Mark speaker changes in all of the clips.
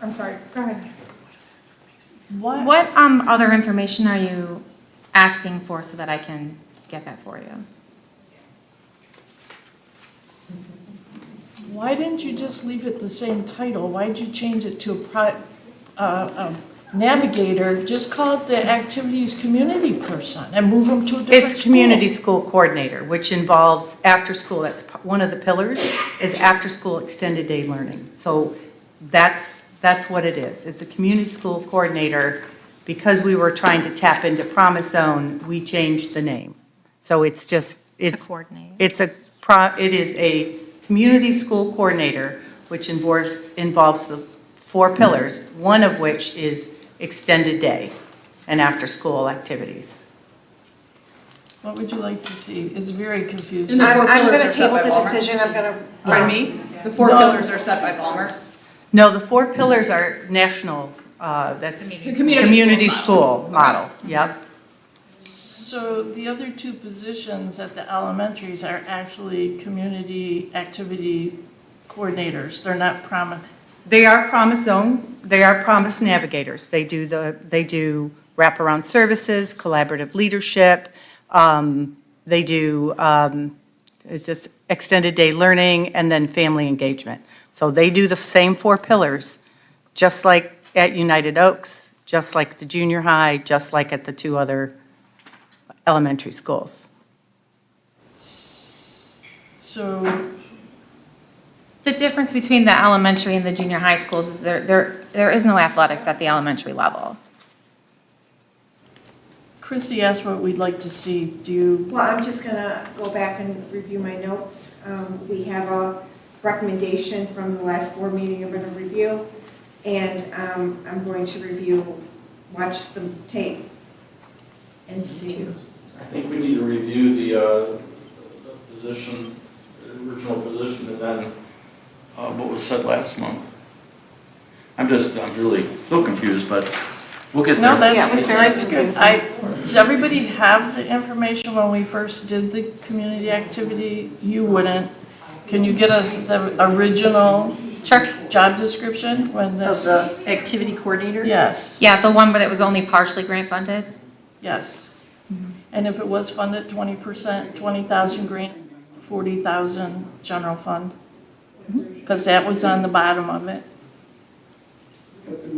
Speaker 1: I'm sorry, go ahead.
Speaker 2: What,
Speaker 3: What um, other information are you asking for so that I can get that for you?
Speaker 2: why didn't you just leave it the same title? Why'd you change it to a pro, uh, um, navigator? Just call it the activities community person and move them to a different
Speaker 4: It's
Speaker 2: school.
Speaker 4: community school coordinator, which involves after-school, that's p- one of the pillars, is after-school extended day learning. So that's, that's what it is. It's a community school coordinator. Because we were trying to tap into Promise Zone, we changed the name. So it's just, it's.
Speaker 3: coordinator.
Speaker 4: It's a, pro- it is a community school coordinator, which involves, involves the four pillars, one of which is extended day and after-school activities.
Speaker 2: What would you like to see? It's very confusing.
Speaker 5: And the
Speaker 1: I'm,
Speaker 5: four
Speaker 1: I'm
Speaker 5: pillars
Speaker 1: gonna
Speaker 5: are set
Speaker 1: table
Speaker 5: by
Speaker 1: the
Speaker 5: Walmart.
Speaker 1: decision, I'm gonna,
Speaker 4: Pardon me?
Speaker 5: The four
Speaker 2: No.
Speaker 5: pillars are set by Ballmer.
Speaker 4: No, the four pillars are national, uh, that's.
Speaker 5: The community
Speaker 4: Community
Speaker 5: school
Speaker 4: school model, yep.
Speaker 2: So the other two positions at the elementaries are actually community activity coordinators. They're not promi,
Speaker 4: They are Promise Zone, they are Promise Navigators. They do the, they do wraparound services, collaborative leadership. um, They do um, it's just extended day learning and then family engagement. So they do the same four pillars, just like at United Oaks, just like the junior high, just like at the two other elementary schools.
Speaker 2: so
Speaker 3: The difference between the elementary and the junior high schools is there, there, there is no athletics at the elementary level.
Speaker 2: Christy asked what we'd like to see. Do you,
Speaker 1: well, I'm just gonna go back and review my notes. Um, we have a recommendation from the last board meeting I'm gonna review, and, um, I'm going to review, watch the tape and see.
Speaker 6: I think we need to review the, uh, the position, the original position, and then, uh, what was said last month. I'm just, I'm really still confused, but we'll get
Speaker 2: no,
Speaker 6: there.
Speaker 2: that's.
Speaker 1: Yeah, it was very
Speaker 2: that's good. I, does everybody have the information when we first did the community activity? You wouldn't. Can you get us the original
Speaker 3: Sure.
Speaker 2: job description when this?
Speaker 4: activity coordinator?
Speaker 2: Yes,
Speaker 3: Yeah, the one where that was only partially grant funded?
Speaker 2: yes. And if it was funded twenty percent, twenty thousand grant, forty thousand general fund? Because that was on the bottom of it.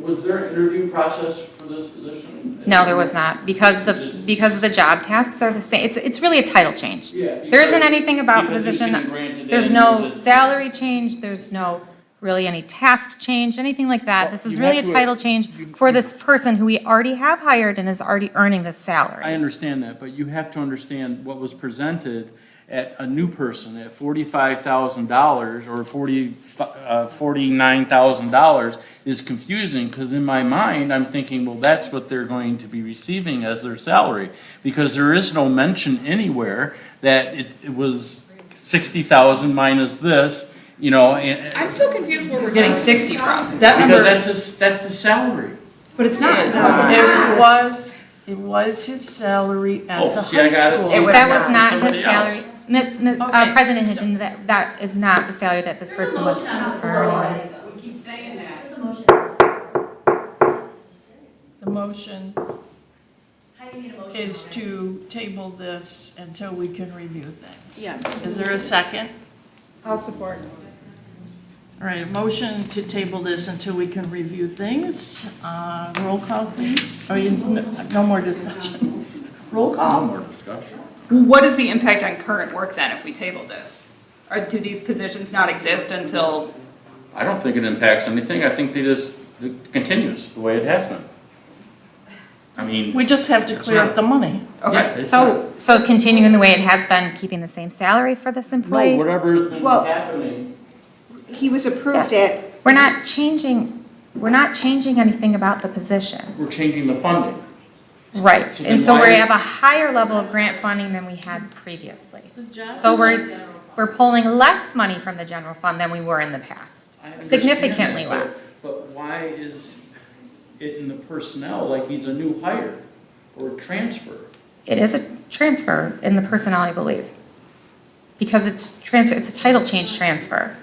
Speaker 6: Was there an interview process for this position?
Speaker 3: No, there was not, because the, because the job tasks are the same. It's, it's really a title change.
Speaker 6: Yeah.
Speaker 3: There isn't anything about the
Speaker 6: because it's been
Speaker 3: position.
Speaker 6: granted
Speaker 3: There's
Speaker 6: and
Speaker 3: no
Speaker 6: you're just-
Speaker 3: salary change, there's no really any task change, anything like that. This is really a title change for this person who we already have hired and is already earning this
Speaker 7: I
Speaker 3: salary.
Speaker 7: understand that, but you have to understand what was presented at a new person at forty-five thousand dollars or forty, uh, forty-nine thousand dollars is confusing, because in my mind, I'm thinking, well, that's what they're going to be receiving as their salary. Because there is no mention anywhere that it, it was sixty thousand minus this, you know, and,
Speaker 5: I'm so confused where we're getting 60 from. That
Speaker 7: because
Speaker 5: number,
Speaker 7: that's just, that's the salary.
Speaker 5: but it's not.
Speaker 2: It was, it was his salary at
Speaker 7: Oh,
Speaker 2: the
Speaker 7: see, I
Speaker 2: high
Speaker 7: got it.
Speaker 2: school.
Speaker 5: It was
Speaker 3: That
Speaker 5: not.
Speaker 3: was not
Speaker 7: Somebody
Speaker 3: his salary.
Speaker 7: else.
Speaker 3: Mi- mi-
Speaker 5: Okay,
Speaker 3: uh, President
Speaker 5: so-
Speaker 3: Hinton, that, that is not the salary that this person was earning.
Speaker 8: We keep saying that. There's a motion.
Speaker 2: The motion
Speaker 8: How do you need a motion?
Speaker 2: is to table this until we can review things.
Speaker 1: Yes.
Speaker 2: Is there a second?
Speaker 1: I'll support.
Speaker 2: All right, a motion to table this until we can review things. Uh, Roll call, please. Oh, you, no no more discussion. Roll
Speaker 7: No
Speaker 2: call.
Speaker 7: more discussion.
Speaker 5: What is the impact on current work then if we table this? Or do these positions not exist until,
Speaker 6: I don't think it impacts anything, I think they just, it continues the way it has been. I mean,
Speaker 2: We just have to clear up the money.
Speaker 6: yeah,
Speaker 5: okay.
Speaker 6: it's.
Speaker 3: So, so continuing the way it has been, keeping the same salary for this
Speaker 6: No,
Speaker 3: employee?
Speaker 6: whatever's been
Speaker 1: Well-
Speaker 6: happening.
Speaker 1: He was approved at,
Speaker 3: We're not changing, we're not changing anything about the position.
Speaker 6: we're changing the funding.
Speaker 3: Right,
Speaker 6: So
Speaker 3: and
Speaker 6: then
Speaker 3: so we
Speaker 6: why is-
Speaker 3: have a higher level of grant funding than we had previously.
Speaker 2: The job
Speaker 3: So we're, we're pulling less money from the general fund than we were in the past,
Speaker 7: I understand
Speaker 3: significantly
Speaker 7: that, but-
Speaker 3: less.
Speaker 7: But why is it in the personnel, like he's a new hire or a transfer?
Speaker 3: It is a transfer in the personnel, I believe, because it's transfer, it's a title change transfer.